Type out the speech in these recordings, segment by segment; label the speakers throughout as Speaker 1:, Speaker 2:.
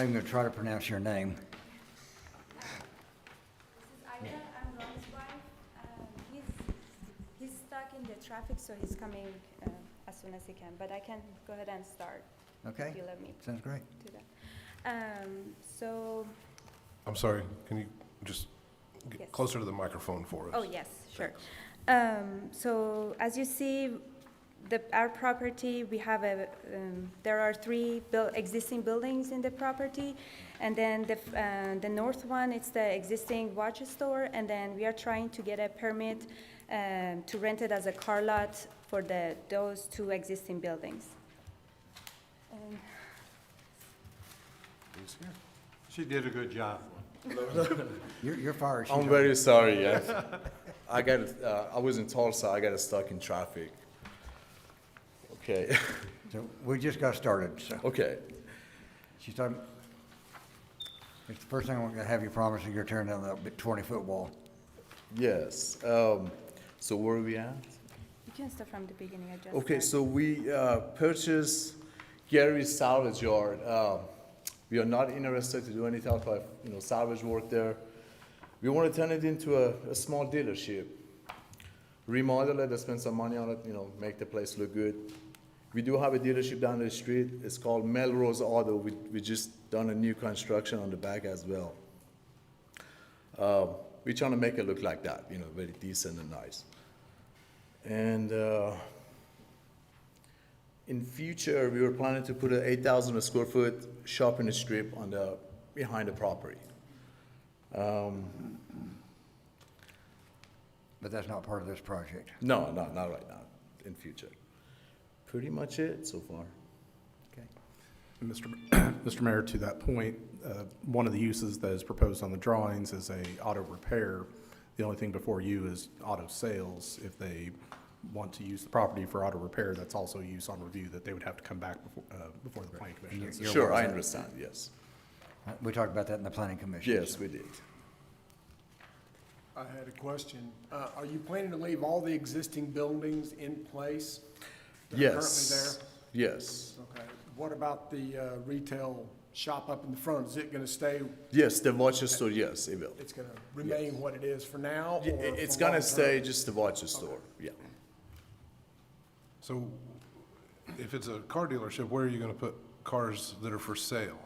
Speaker 1: I'm going to try to pronounce your name.
Speaker 2: This is Aida, I'm Ron's wife. Um, He's, he's stuck in the traffic, so he's coming uh, as soon as he can, but I can go ahead and start.
Speaker 1: Okay?
Speaker 2: If you let me
Speaker 1: Sounds great.
Speaker 2: do that. Um, So,
Speaker 3: I'm sorry, can you just
Speaker 2: Yes.
Speaker 3: get closer to the microphone for us?
Speaker 2: oh, yes, sure. Um, So as you see, the, our property, we have a, um, there are three buil- existing buildings in the property. And then the, f- uh, the north one, it's the existing watch store. And then we are trying to get a permit um, to rent it as a car lot for the, those two existing buildings. Um,
Speaker 3: He's here.
Speaker 4: She did a good job.
Speaker 1: You're, you're fired.
Speaker 5: I'm
Speaker 1: She's-
Speaker 5: very sorry. I, I got, uh, I was in Tulsa. I got stuck in traffic. Okay,
Speaker 1: So we just got started, so.
Speaker 5: okay.
Speaker 1: She's talking, it's the first thing I'm going to have you promise is you're tearing down that 20-foot wall.
Speaker 5: Yes. Um, so where are we at?
Speaker 2: You can start from the beginning, I just.
Speaker 5: Okay,
Speaker 2: started.
Speaker 5: so we uh, purchased Gary's salvage yard. Um, we are not interested to do any type of you know salvage work there. We want to turn it into a, a small dealership, remodel it, spend some money on it, you know, make the place look good. We do have a dealership down the street. It's called Melrose Auto. We we just done a new construction on the back as well. Uh, we're trying to make it look like that, you know, very decent and nice. And uh, in future, we were planning to put an 8,000 square foot shopping strip on the, behind the property. Um,
Speaker 1: But that's not part of this project.
Speaker 5: No, no, not right now, in future. Pretty much it so far.
Speaker 6: Mr. Mr. Mayor, to that point, uh, one of the uses that is proposed on the drawings is a auto repair. The only thing before you is auto sales. If they want to use the property for auto repair, that's also a use on review that they would have to come back before, uh, before the planning commission.
Speaker 1: You're-
Speaker 6: It's-
Speaker 1: you're
Speaker 5: Sure,
Speaker 1: aware
Speaker 5: I
Speaker 1: of that.
Speaker 5: understand, yes.
Speaker 1: Uh, We talked about that in the planning commission.
Speaker 5: Yes, we did.
Speaker 7: I had a question. Uh, Are you planning to leave all the existing buildings in place? that are
Speaker 5: Yes. Yes.
Speaker 7: Currently there? Okay. What about the uh, retail shop up in the front? Is it going to stay,
Speaker 5: Yes, the Rochester, yes, it will.
Speaker 7: it's going to remain what it is for now?
Speaker 5: Y-
Speaker 7: or
Speaker 5: It's
Speaker 7: for
Speaker 5: gonna
Speaker 7: long-term?
Speaker 5: stay just the Rochester, yeah.
Speaker 3: So if it's a car dealership, where are you going to put cars that are for sale?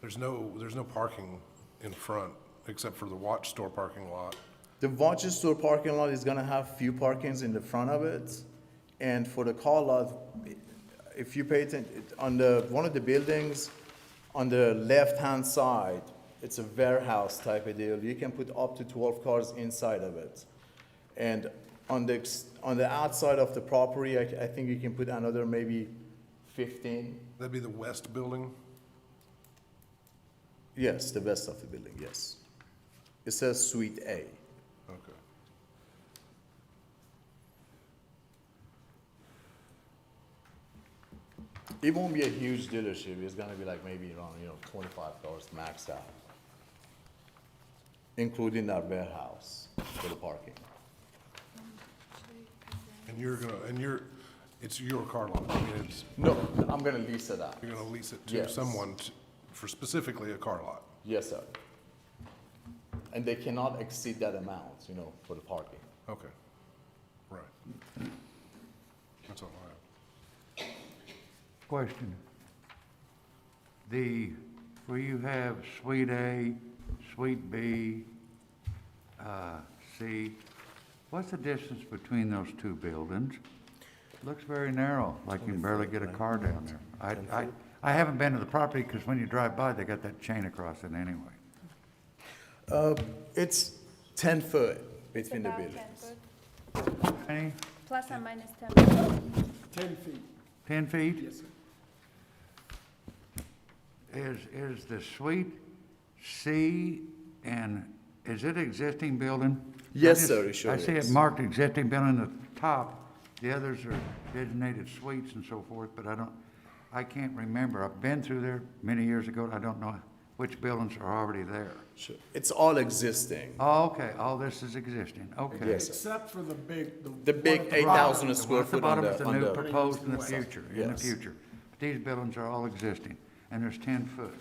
Speaker 3: There's no, there's no parking in front, except for the watch store parking lot.
Speaker 5: The Rochester parking lot is gonna have few parkings in the front of it, and for the car lot, if you pay attention, on the, one of the buildings, on the left-hand side, it's a warehouse type of deal, you can put up to twelve cars inside of it. And on the, ex- on the outside of the property, I, I think you can put another maybe fifteen,
Speaker 3: That'd be the west building?
Speaker 5: yes, the west of the building, yes. It says Suite A.
Speaker 3: Okay.
Speaker 5: It won't be a huge dealership, it's gonna be like maybe around, you know, twenty-five cars max out. Including that warehouse for the parking.
Speaker 3: And you're going to, and you're, it's your car lot. I mean, it's,
Speaker 5: No, I'm gonna lease it out.
Speaker 3: you're going to lease it to
Speaker 5: Yes.
Speaker 3: someone t- for specifically a car lot.
Speaker 5: Yes, sir. And they cannot exceed that amount, you know, for the parking.
Speaker 3: Okay. Right. That's all I have.
Speaker 8: Question. The, where you have Suite A, Suite B, uh, C, what's the distance between those two buildings? Looks very narrow, like you can barely get a car down there. I, I, I haven't been to the property because when you drive by, they got that chain across it anyway.
Speaker 5: Uh, it's ten foot
Speaker 2: It's
Speaker 5: between the
Speaker 2: about 10
Speaker 5: buildings.
Speaker 2: foot,
Speaker 8: Any,
Speaker 2: Plus or minus 10.
Speaker 7: Ten feet.
Speaker 8: ten feet?
Speaker 7: Yes, sir.
Speaker 8: Is, is the suite C and, is it existing building?
Speaker 5: Yes,
Speaker 8: I just-
Speaker 5: sir, it sure
Speaker 8: I see it
Speaker 5: is.
Speaker 8: marked existing building at the top. The others are designated suites and so forth, but I don't, I can't remember. I've been through there many years ago, and I don't know which buildings are already there.
Speaker 5: Sure. It's all existing.
Speaker 8: Oh, okay, all this is existing, okay.
Speaker 5: Yes. sir.
Speaker 7: Except for the big, the.
Speaker 5: The
Speaker 7: one
Speaker 5: big
Speaker 7: at the
Speaker 5: eight
Speaker 7: bottom.
Speaker 5: thousand square
Speaker 8: At the
Speaker 5: foot on
Speaker 8: bottom is
Speaker 5: the,
Speaker 8: the
Speaker 5: on
Speaker 8: new
Speaker 5: the,
Speaker 8: proposed in the
Speaker 7: Yes.
Speaker 8: future, in the
Speaker 5: Yes.
Speaker 8: future. These buildings are all existing, and there's ten foot.